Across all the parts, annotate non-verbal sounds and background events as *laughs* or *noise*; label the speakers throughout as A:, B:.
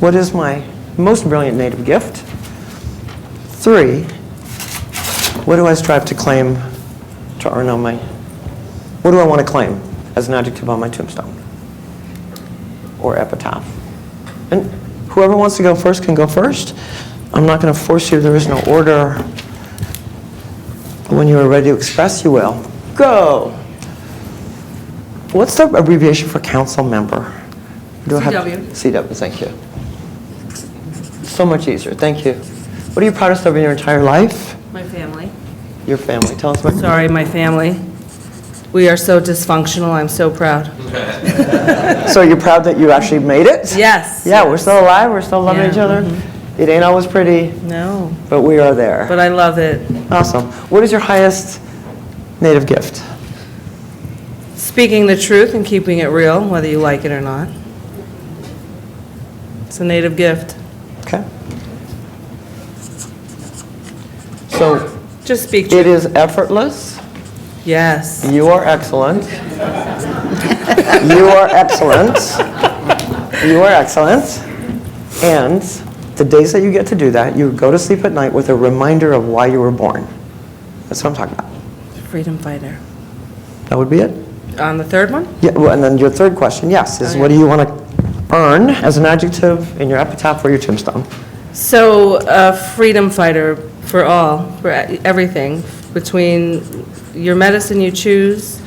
A: What is my most brilliant native gift? Three, what do I strive to claim, to earn on my, what do I want to claim as an adjective on my tombstone? Or epitaph? And whoever wants to go first can go first. I'm not going to force you, there is no order. When you are ready to express, you will. Go! What's the abbreviation for council member? Do I have-
B: CW.
A: CW, thank you. So much easier, thank you. What are you proudest of in your entire life?
B: My family.
A: Your family, tell us about
B: Sorry, my family. We are so dysfunctional, I'm so proud.
A: So you're proud that you actually made it?
B: Yes.
A: Yeah, we're still alive, we're still loving
B: Yeah,
A: each other. It ain't always pretty,
B: No,
A: but we are there.
B: but I love it.
A: Awesome. What is your highest native gift?
B: Speaking the truth and keeping it real, whether you like it or not. It's a native gift.
A: Okay. So
B: Just speak
A: it
B: truth.
A: is effortless.
B: Yes.
A: You are excellent. You are excellent. You are excellent. And the days that you get to do that, you go to sleep at night with a reminder of why you were born. That's what I'm talking about.
B: Freedom fighter.
A: That would be it?
B: On the third one?
A: Yeah, well, and then your third question, yes, is
B: Oh,
A: what do
B: yeah.
A: you want to earn as an adjective in your epitaph or your tombstone?
B: So, a freedom fighter for all, for everything, between your medicine you choose,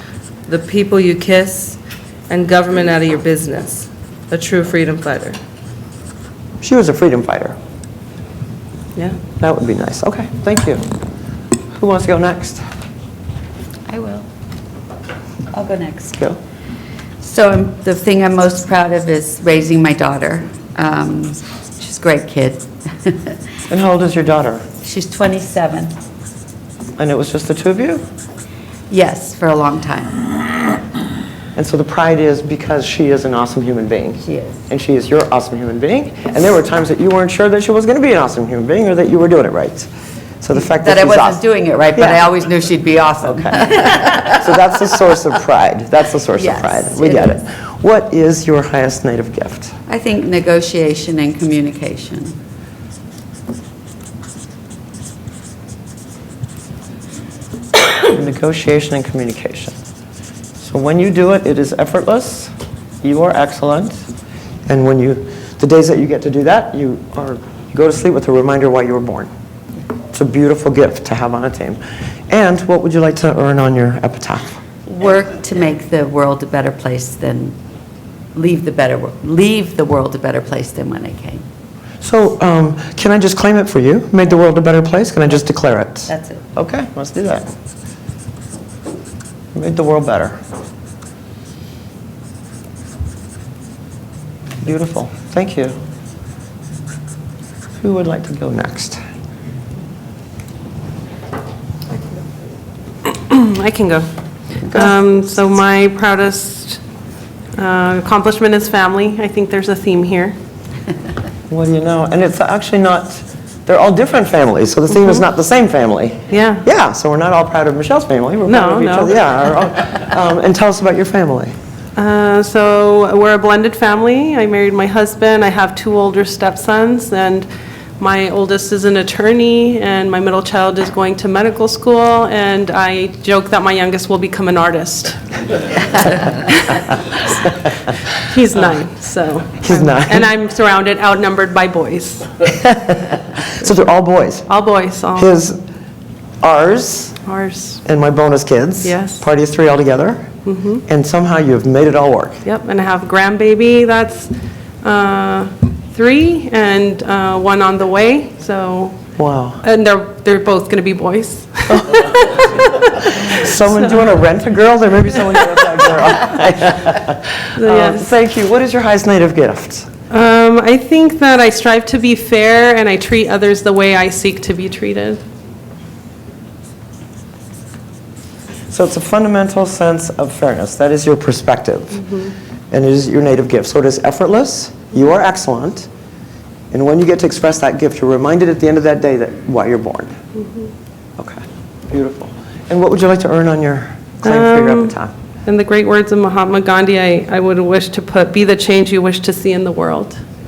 B: the people you kiss, and government out of your business. A true freedom fighter.
A: She was a freedom fighter.
B: Yeah.
A: That would be nice. Okay, thank you. Who wants to go next?
C: I will. I'll go next.
A: Go.
C: So I'm- the thing I'm most proud of is raising my daughter. Um, She's a great kid. *laughs*
A: And how old is your daughter?
C: She's 27.
A: And it was just the two of you?
C: Yes, for a long time.
A: And so the pride is because she is an awesome human being.
C: She is.
A: And she is your awesome human being. And there were times that you weren't sure that she was going to be an awesome human being or that you were doing it right. So the fact that,
C: That I
A: she's
C: wasn't
A: awesome-
C: doing it right, but I
A: Yeah.
C: always knew she'd be awesome.
A: So that's the source of pride. That's the source
C: *laughs* Yes,
A: of pride. We
C: it
A: get
C: is.
A: it. What is your highest native gift?
C: I think negotiation and communication.
A: Negotiation and communication. So when you do it, it is effortless. You are excellent. And when you, the days that you get to do that, you are, you go to sleep with a reminder why you were born. It's a beautiful gift to have on a team. And what would you like to earn on your epitaph?
C: Work to make the world a better place than, leave the better, wor- leave the world a better place than when I came.
A: So um, can I just claim it for you? Made the world a better place? Can I just declare it?
C: That's it.
A: Okay, let's do that. Made the world better. Beautiful, thank you. Who would like to go next?
D: Hmm, I can go. Um, So my proudest uh, accomplishment is family. I think there's a theme here.
A: What do you know? And it's actually not, they're all different families, so the theme is not the same family.
D: Mm-hmm. Yeah.
A: Yeah, so we're not all proud of Michelle's family, we're proud
D: No,
A: of each
D: no.
A: other. Yeah, our own. Um, And tell us about your family.
D: Uh, So we're a blended family. I married my husband. I have two older stepsons, and my oldest is an attorney, and my middle child is going to medical school, and I joke that my youngest will become
A: *laughs*
D: an artist. He's nine, so.
A: Uh, He's nine.
D: And I'm surrounded, outnumbered by boys.
A: So they're all boys.
D: All boys, all
A: His, ours,
D: ours.
A: and my bonus kids.
D: Yes.
A: Party of three altogether. Mm-hmm. And somehow you have made it all work.
D: Yep, and I have grandbaby, that's uh, three, and uh, one on the way, so,
A: Wow.
D: and they're, they're both going to be boys.
A: Someone, do you want to rent a girl? There may be someone who rents out
D: *laughs*
A: a girl. Um,
D: Yes.
A: Thank you. What is your highest native gift?
D: Um, I think that I strive to be fair, and I treat others the way I seek to be treated.
A: So it's a fundamental sense of fairness. That is your perspective.
D: Mm-hmm.
A: And it is your native gift. So it is effortless. You are excellent. And when you get to express that gift, you're reminded at the end of that day that why you're born.
D: Mm-hmm.
A: Okay. Beautiful. And what would you like to earn on your claim for your
D: Um,
A: epitaph?
D: In the great words of Mahatma Gandhi, I I would wish to put, "Be the change you wish to see in the world."